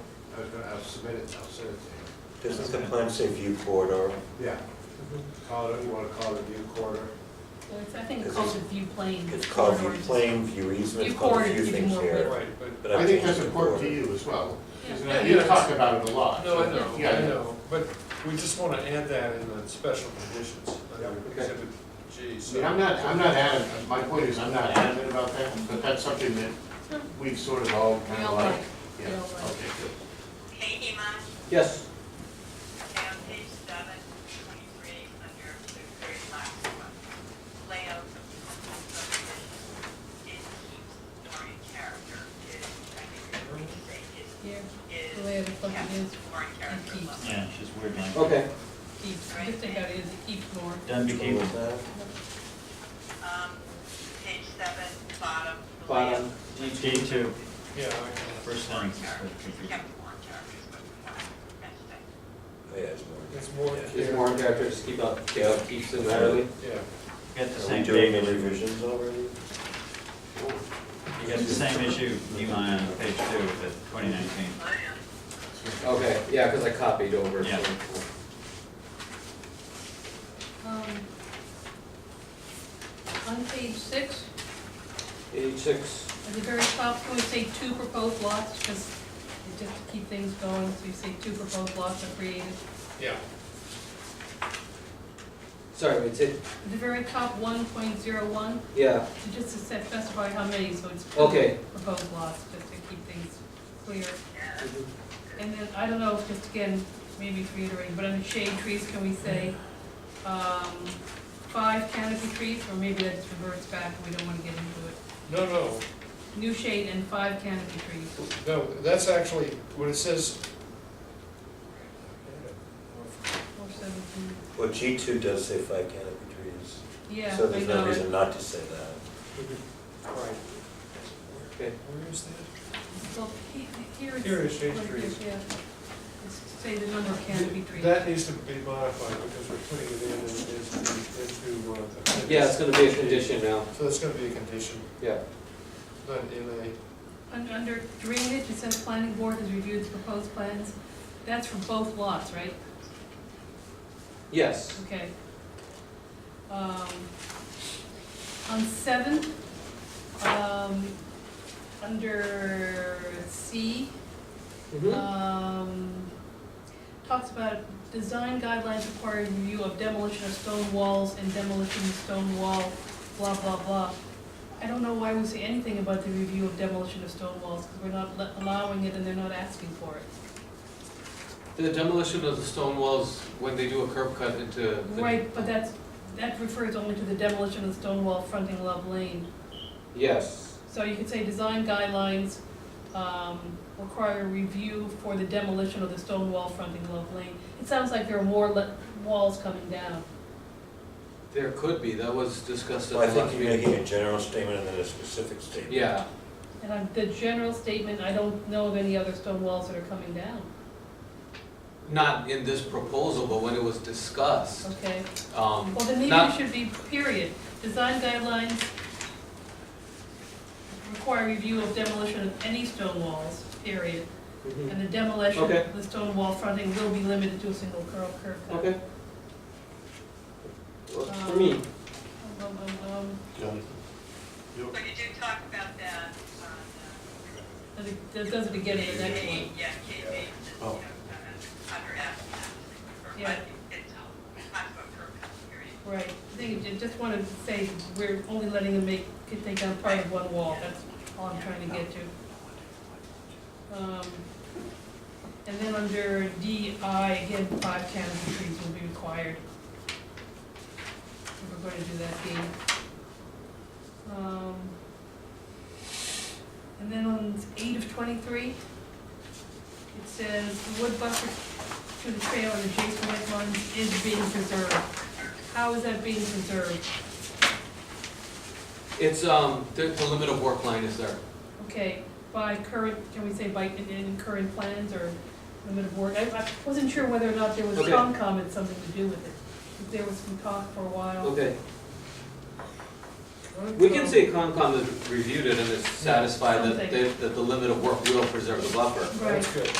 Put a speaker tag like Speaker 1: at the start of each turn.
Speaker 1: I was gonna, I'll submit it, and I'll send it to
Speaker 2: This is the Clemson View Corridor.
Speaker 1: you. Yeah, call it, you wanna call it a view quarter?
Speaker 3: Well, it's, I think
Speaker 2: This
Speaker 3: it's called
Speaker 2: is-
Speaker 3: the view plane.
Speaker 2: It's called View
Speaker 3: corridor.
Speaker 2: Plain, View Easement,
Speaker 3: View
Speaker 2: it's called a
Speaker 3: corridor,
Speaker 2: few
Speaker 3: you
Speaker 2: things
Speaker 3: can
Speaker 2: here.
Speaker 3: work
Speaker 4: Right, but,
Speaker 2: but
Speaker 1: I
Speaker 2: I've
Speaker 1: think
Speaker 2: changed
Speaker 1: that's
Speaker 2: the
Speaker 1: important to
Speaker 2: border.
Speaker 1: you as well.
Speaker 3: Yeah.
Speaker 1: isn't it?
Speaker 4: Yeah, yeah,
Speaker 1: You
Speaker 4: it's-
Speaker 1: talk about it a lot.
Speaker 4: no, I
Speaker 1: so-
Speaker 4: know, I
Speaker 1: Yeah.
Speaker 4: know, but we just wanna add that in the special conditions,
Speaker 1: Yeah,
Speaker 4: under
Speaker 1: okay.
Speaker 4: exhibit G,
Speaker 1: I
Speaker 4: so.
Speaker 1: mean, I'm not, I'm not adamant, my point is, I'm not adamant about that, but that's something that
Speaker 3: No,
Speaker 1: we've sort of all kind
Speaker 3: We
Speaker 1: of
Speaker 3: all
Speaker 1: like.
Speaker 3: like, we
Speaker 1: Yeah,
Speaker 3: all like.
Speaker 1: okay, good.
Speaker 5: Hey, Iman,
Speaker 6: Yes.
Speaker 5: okay, on page seven, twenty-three, under the very last one, layout of the coastal subdivision, it keeps story character is, I think you're going to say is,
Speaker 3: Here,
Speaker 5: is.
Speaker 3: The way it fucking
Speaker 5: kept
Speaker 3: is.
Speaker 5: Story character
Speaker 3: keeps.
Speaker 5: level.
Speaker 7: Yeah, it's just weird language.
Speaker 6: Okay.
Speaker 3: keeps, I just think that is, it keeps more.
Speaker 7: Done became,
Speaker 2: Control that.
Speaker 5: Um, page seven, bottom. the layout
Speaker 6: Bottom.
Speaker 5: of
Speaker 7: day two,
Speaker 4: Yeah, I-
Speaker 7: first
Speaker 5: story
Speaker 7: time.
Speaker 5: character, Kept more characters, but more, meant that.
Speaker 2: Oh, Yeah, it's more.
Speaker 4: it's more,
Speaker 6: There's more in character, just keep up,
Speaker 2: Yeah.
Speaker 6: keeps it entirely.
Speaker 4: yeah.
Speaker 7: Got the
Speaker 2: Are we
Speaker 7: same
Speaker 2: doing
Speaker 7: date,
Speaker 2: any revisions already?
Speaker 7: you got the same issue, you on page two of the twenty nineteen.
Speaker 5: Oh, yeah.
Speaker 6: Okay, yeah, because I copied over. so-
Speaker 7: Yeah.
Speaker 3: Um, On page six,
Speaker 6: Page six.
Speaker 3: at the very top, can we say two proposed lots, because just to keep things going, so you say two proposed lots are created.
Speaker 4: Yeah.
Speaker 6: Sorry, it's it,
Speaker 3: At the very top, one point zero one,
Speaker 6: yeah,
Speaker 3: to just to set- specify how many, so it's two
Speaker 6: Okay.
Speaker 3: proposed lots, just to keep things clear.
Speaker 5: Yeah,
Speaker 3: Mm-hmm. And then, I don't know, just again, maybe it's reiterating, but under shade trees, can we say, um, five canopy trees, or maybe that just reverts back, and we don't wanna get into it.
Speaker 4: No, no,
Speaker 3: New shade and five canopy trees.
Speaker 4: no, that's actually, when it says.
Speaker 3: Or seventeen,
Speaker 2: Well, G two does say five canopy trees.
Speaker 3: yeah,
Speaker 2: So
Speaker 3: I
Speaker 2: there's no
Speaker 3: know it.
Speaker 2: reason not to say that.
Speaker 4: Right.
Speaker 6: okay.
Speaker 4: Where is that?
Speaker 3: Well, he- here it's.
Speaker 4: Here is shade
Speaker 3: like
Speaker 4: trees.
Speaker 3: this, Yeah, it's to say the number of canopy trees.
Speaker 4: That needs to be modified because we're putting it in as, as, into, uh. the-
Speaker 6: Yeah, it's gonna be a condition now,
Speaker 4: So that's gonna be a condition,
Speaker 6: yeah.
Speaker 4: not in a,
Speaker 3: Un- Under drainage, it says planning board has reviewed the proposed plans, that's for both lots, right?
Speaker 6: Yes,
Speaker 3: Okay. Um, On seven, um, under C, Mm-hmm.
Speaker 6: mhm,
Speaker 3: um, talks about design guidelines requiring review of demolition of stone walls and demolition of stone wall, blah, blah, blah. I don't know why we say anything about the review of demolition of stone walls, because we're not le- allowing it and they're not asking for it.
Speaker 8: The demolition of the stone walls, when they do a curb cut into the.
Speaker 3: Right, but that's, that refers only to the demolition of the stone wall fronting Love Lane.
Speaker 6: yes,
Speaker 3: So you could say design guidelines um, require a review for the demolition of the stone wall fronting Love Lane. It sounds like there are more le- walls coming down.
Speaker 8: There could be, that was discussed
Speaker 2: Well, I
Speaker 8: at the
Speaker 2: think
Speaker 8: last
Speaker 2: you're
Speaker 8: meeting.
Speaker 2: making a general statement and then a specific statement.
Speaker 8: Yeah,
Speaker 3: And I'm- the general statement, I don't know of any other stone walls that are coming down,
Speaker 8: not in this proposal, but when it was discussed,
Speaker 3: okay?
Speaker 8: um,
Speaker 3: Well, then maybe it
Speaker 8: not,
Speaker 3: should be period. Design guidelines require review of demolition of any stone walls, period.
Speaker 6: mhm,
Speaker 3: And the demolition
Speaker 6: Okay.
Speaker 3: of the stone wall fronting will be limited to a single curl curve cut.
Speaker 6: okay. Works for me,
Speaker 3: Um, um, um, um.
Speaker 5: But you do talk about that on, uh,
Speaker 3: That it- That does it again in the next one.
Speaker 5: Yeah, KB, you know,
Speaker 2: Oh.
Speaker 5: uh, under F, or,
Speaker 3: Yeah.
Speaker 5: but it's, um, talks about curb cuts, period.
Speaker 3: Right, I think you just wanted to say we're only letting them make, could take down part of one wall, that's all I'm trying to get to. Um, And then under DI, again, five canopy trees will be required. If We're going to do that again. Um, And then on eight of twenty-three, it says the wood buffer to the trail and adjacent wet lines is being preserved. How is that being preserved?
Speaker 8: it's, um, the, the limit of work line is there.
Speaker 3: Okay, by current, can we say by, in, in current plans or limit of work? I, I wasn't sure whether or not there was
Speaker 8: Okay.
Speaker 3: Concom had something to do with it. 'cause There was some talk for a while.
Speaker 6: Okay, we can say Concom has reviewed it and is satisfied that,
Speaker 3: Something.
Speaker 6: they- that the limit of work will preserve the buffer.
Speaker 3: Right.
Speaker 4: That's good.